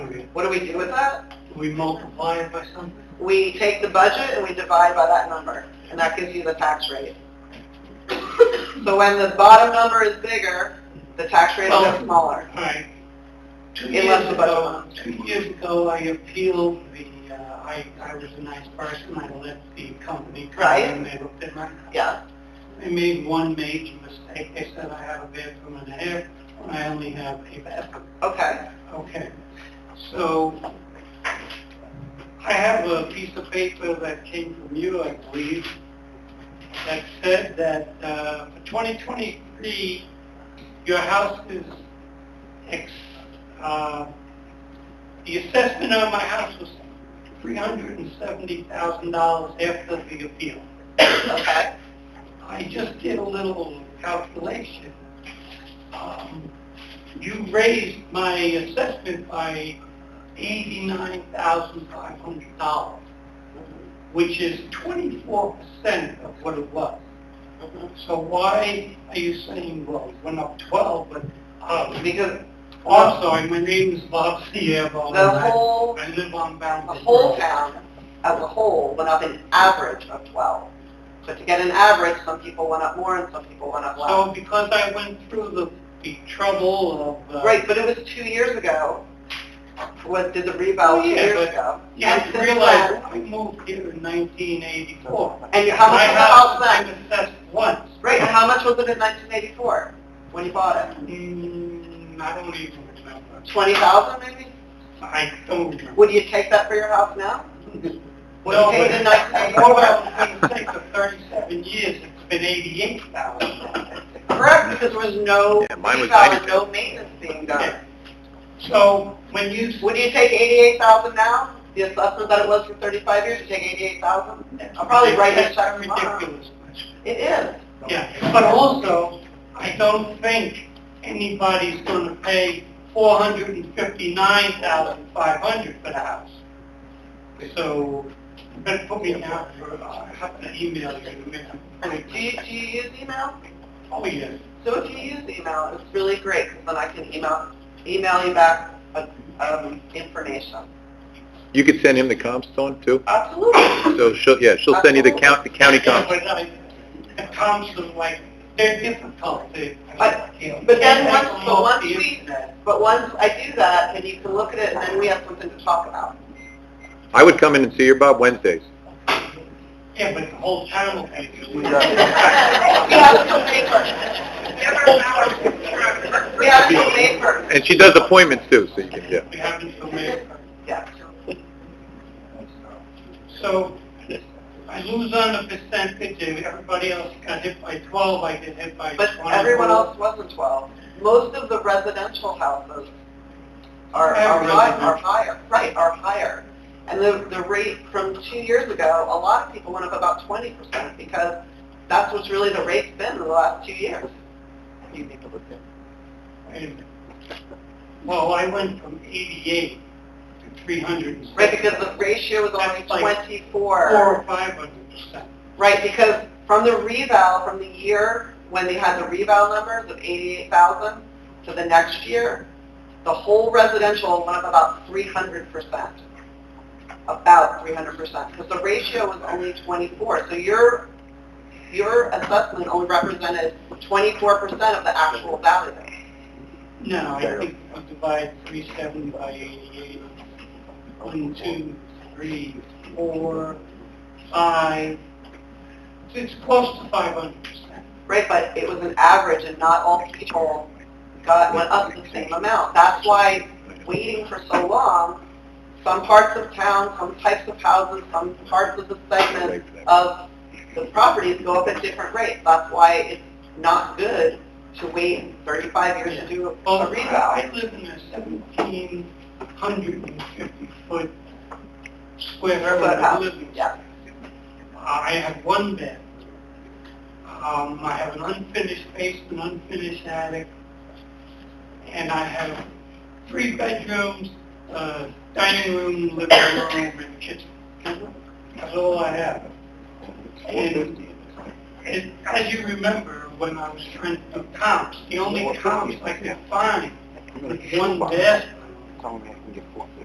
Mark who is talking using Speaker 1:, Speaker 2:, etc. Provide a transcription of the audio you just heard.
Speaker 1: What do we do with that?
Speaker 2: We multiply it by something.
Speaker 1: We take the budget and we divide by that number, and that gives you the tax rate. So when the bottom number is bigger, the tax rate is
Speaker 2: Well-
Speaker 1: smaller.
Speaker 2: All right. Two
Speaker 1: It
Speaker 2: years
Speaker 1: left the budget
Speaker 2: ago,
Speaker 1: alone.
Speaker 2: two years ago, I appealed the, uh, I, I was a nice person, I let the company come
Speaker 1: Right.
Speaker 2: in, they looked at my
Speaker 1: Yeah,
Speaker 2: They made one major mistake. They said I have a bathroom and a half, and I only have a bathroom.
Speaker 1: okay,
Speaker 2: Okay. So I have a piece of paper that came from you, I believe, that said that uh, for 2023, your house is, ex- uh, the assessment on my house was $370,000 after the appeal.
Speaker 1: okay.
Speaker 2: I just did a little calculation. Um, You raised my assessment by $89,500, which is 24% of what it was. So why are you saying, well, it went up 12, but, um,
Speaker 1: Because
Speaker 2: I'm sorry, my name is Bob Sierra.
Speaker 1: the whole,
Speaker 2: I live on
Speaker 1: the
Speaker 2: Bountiful.
Speaker 1: whole town as a whole went up an average of 12. So to get an average, some people went up more and some people went up less.
Speaker 2: So because I went through the the trouble of... uh,
Speaker 1: Right, but it was two years ago, was, did the rebound two
Speaker 2: Oh, yeah,
Speaker 1: years
Speaker 2: but-
Speaker 1: ago.
Speaker 2: You have
Speaker 1: And
Speaker 2: to
Speaker 1: since
Speaker 2: realize,
Speaker 1: then-
Speaker 2: I moved here in 1984.
Speaker 1: And how much
Speaker 2: My
Speaker 1: was the house
Speaker 2: I
Speaker 1: then?
Speaker 2: was assessed once.
Speaker 1: Right, and how much was it in 1984 when you bought it?
Speaker 2: Mm, I don't even remember.
Speaker 1: 20,000 maybe?
Speaker 2: I don't remember.
Speaker 1: Would you take that for your house now? Would you
Speaker 2: No,
Speaker 1: take it in
Speaker 2: but- Well,
Speaker 1: 1984?
Speaker 2: I think for 37 years, it's been 88,000.
Speaker 1: Correct, because there was no
Speaker 3: Yeah, mine was
Speaker 1: rebound,
Speaker 3: 92.
Speaker 1: no maintenance being done.
Speaker 2: So when you,
Speaker 1: Would you take 88,000 now? The assessment that it was for 35 years, you take 88,000? I'll probably write that check
Speaker 2: That's
Speaker 1: tomorrow.
Speaker 2: ridiculous question.
Speaker 1: It is.
Speaker 2: Yeah, but also, I don't think anybody's gonna pay four hundred and fifty-nine thousand five hundred for the house. So, you better put me down for, I have an email you in a minute.
Speaker 1: Do you, do you use email?
Speaker 2: Oh, yes.
Speaker 1: So if you use email, it's really great because then I can email, email you back uh, um, information.
Speaker 3: You could send him the comp stone too?
Speaker 1: Absolutely.
Speaker 3: So she'll, yeah, she'll send you the count, the county
Speaker 2: Yeah,
Speaker 3: comp.
Speaker 2: But I, the comps are like, they're difficult, they.
Speaker 1: But- but then once- but once we-
Speaker 2: we.
Speaker 1: But once I do that, and you can look at it, and then we have something to talk about.
Speaker 3: I would come in and see your Bob Wednesdays.
Speaker 2: Yeah, but the whole town will pay. for it.
Speaker 1: We have some paper. We have some paper.
Speaker 3: And she does appointments too, so you can, yeah.
Speaker 2: We haven't submitted.
Speaker 1: Yeah.
Speaker 2: So I lose on the percentage, and everybody else got hit by 12, I get hit by 20.
Speaker 1: But everyone else wasn't 12. Most of the residential houses are, are
Speaker 2: Every
Speaker 1: high- are
Speaker 2: residential.
Speaker 1: higher, right, are higher. And the, the rate from two years ago, a lot of people went up about 20% because that's what's really the rate's been in the last two years.
Speaker 2: And- Well, I went from 88 to 300.
Speaker 1: Right, because the ratio was only
Speaker 2: That's like
Speaker 1: 24.
Speaker 2: Four or 500%.
Speaker 1: Right, because from the reval, from the year when they had the reval numbers of 88,000 to the next year, the whole residential went up about 300%. About 300%, because the ratio was only 24. So your, your assessment only represented 24% of the actual value.
Speaker 2: No, I think I'll divide 370 by 88. One, two, three, four, five. It's close to 500%.
Speaker 1: Right, but it was an average and not all people got, went up the same amount. That's why waiting for so long, some parts of town, some types of houses, some parts of the segment of the properties go up at different rates. That's why it's not good to wait 35 years to do a-
Speaker 2: Well,
Speaker 1: a reval.
Speaker 2: I live in a seventeen hundred and fifty foot square
Speaker 1: Foot
Speaker 2: area
Speaker 1: house,
Speaker 2: living.
Speaker 1: yeah.
Speaker 2: I have one bed. Um, I have an unfinished basement, unfinished attic, and I have three bedrooms, uh, dining room, living room, and kitchen. That's all I have. And it, as you remember, when I was trying to do comps, the only comps I could find was one bathroom.